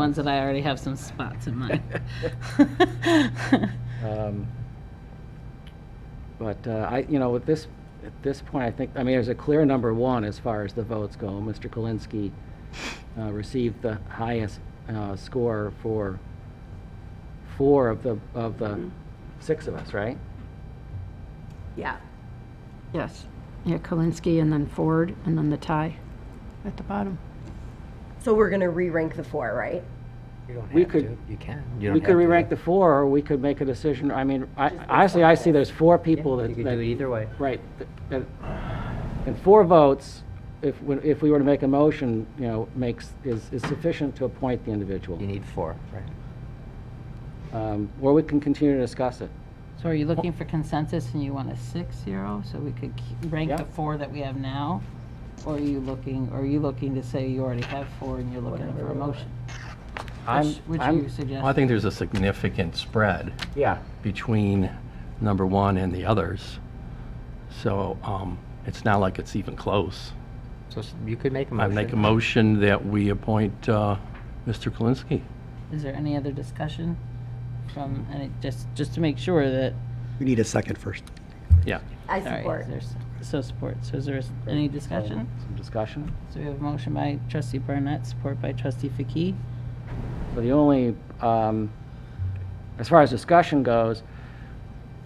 ones that I already have some spots in mind. Um, But uh, I, you know, at this, at this point, I think, I mean, there's a clear number one as far as the votes go. Mr. Kalinsky uh, received the highest uh, score for four of the, of the six of us, right? Yeah. Yes. Yeah, Kalinsky and then Ford and then the tie at the bottom. So we're going to re-rank the four, right? You don't We have could- to. You can. You don't We could have to. re-rank the four, or we could make a decision, I mean, I- honestly, I see there's four people that. You could that- do it either way. Right. And and four votes, if, we- if we were to make a motion, you know, makes, is is sufficient to appoint the individual. You need four, right? Um, Or we can continue to discuss it. So are you looking for consensus and you want a six zero, so we could k- rank the Yeah. four that we have now? Or are you looking, or are you looking to say you already have four and you're looking for a motion? I'm- Which, which I'm- you suggest? Well, I think there's a significant spread Yeah. between number one and the others. So um, it's not like it's even close. So s- you could make a I motion. make a motion that we appoint uh, Mr. Kalinsky. Is there any other discussion from, and it just, just to make sure that, We need a second first. Yeah. I all right, support. is there s- so support, so is there s- any discussion? Some discussion. So we have a motion by trustee Barnett, support by trustee Faki. So the only, um, as far as discussion goes,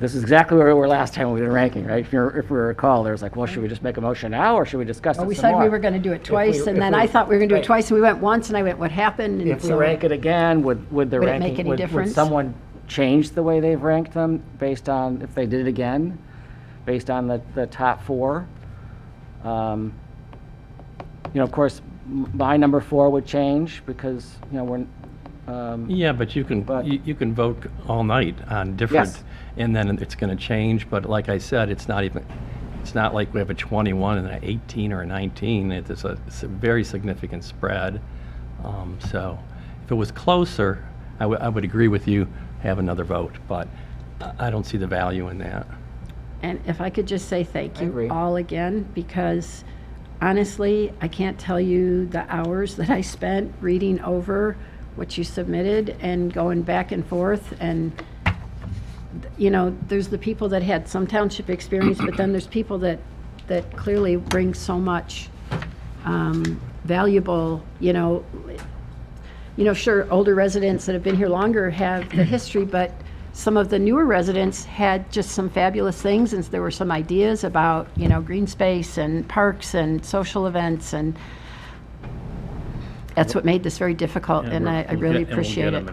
this is exactly where we were last time we did ranking, right? If you if we recall, there was like, well, should we just make a motion now, or should we discuss it some Well, more? we said we were going to do it twice, and if then we- I thought we were going to do right. it twice, and we went once, and I went, what happened? And If we so- rank it again, would, would the Would it ranking... make any would- Would difference? someone change the way they've ranked them based on, if they did it again, based on the, the top four? Um, You know, of course, m- my number four would change because, you know, we're, um, Yeah, but you can, But- you you can vote all night on different, Yes. and then it's going to change, but like I said, it's not even, it's not like we have a 21 and an 18 or a 19. It is a, it's a very significant spread. Um, So if it was closer, I would, I would agree with you, have another vote, but I- I don't see the value in that. And if I could just say thank agree. you all again, because honestly, I can't tell you the hours that I spent reading over what you submitted and going back and forth. And, you know, there's the people that had some township experience, but then there's people that, that clearly bring so much um, valuable, you know, you know, sure, older residents that have been here longer have the history, but some of the newer residents had just some fabulous things, and there were some ideas about, you know, green space and parks and social events, and that's what made this very difficult, and I I really appreciate it.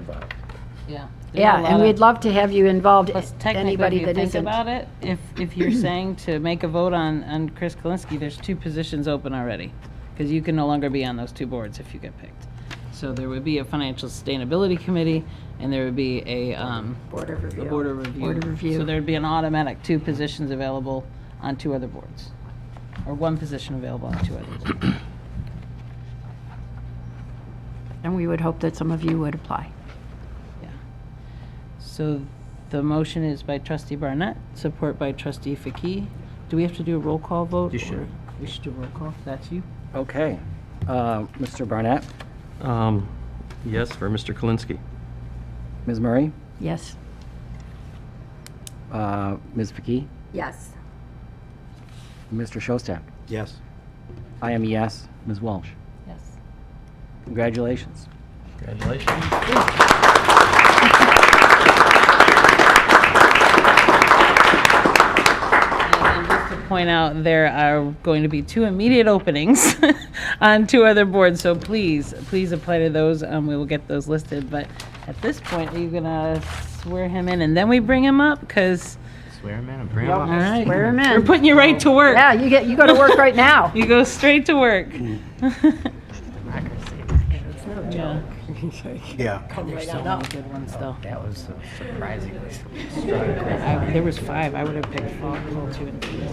Yeah. Yeah, and we'd love to have you involved, Plus, technically, anybody if you that think isn't. about it, if, if you're saying to make a vote on, on Chris Kalinsky, there's two positions open already. Because you can no longer be on those two boards if you get picked. So there would be a financial sustainability committee, and there would be a, um, Board of a Review. board of review. Board of Review. So there'd be an automatic two positions available on two other boards. Or one position available on two other boards. And we would hope that some of you would apply. Yeah. So the motion is by trustee Barnett, support by trustee Faki. Do we have to do a roll call vote? You should. or- We should do roll call, that's you? okay. Uh, Mr. Barnett, Um, Yes, for Mr. Kalinsky. Ms. Murray, Yes. uh, Ms. Vicki, Yes. Mr. Shostak. Yes. I am a yes. Ms. Walsh, Yes. congratulations. Congratulations. And just to point out, there are going to be two immediate openings on two other boards, so please, please apply to those, um, we will get those listed. But at this point, are you gonna swear him in and then we bring him up? Because, Swear him in and bring him all up. right. Swear 'em We're in. Oh. putting you right to work. Yeah, you get, you go to work right now. You go straight to work. Yeah. Yeah. There's so many good ones, though. That was uh, surprisingly. I- There was five. I would have picked four, four, two, and three.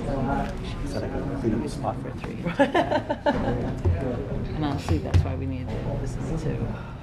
spot for three. And honestly, that's why we need, this is two.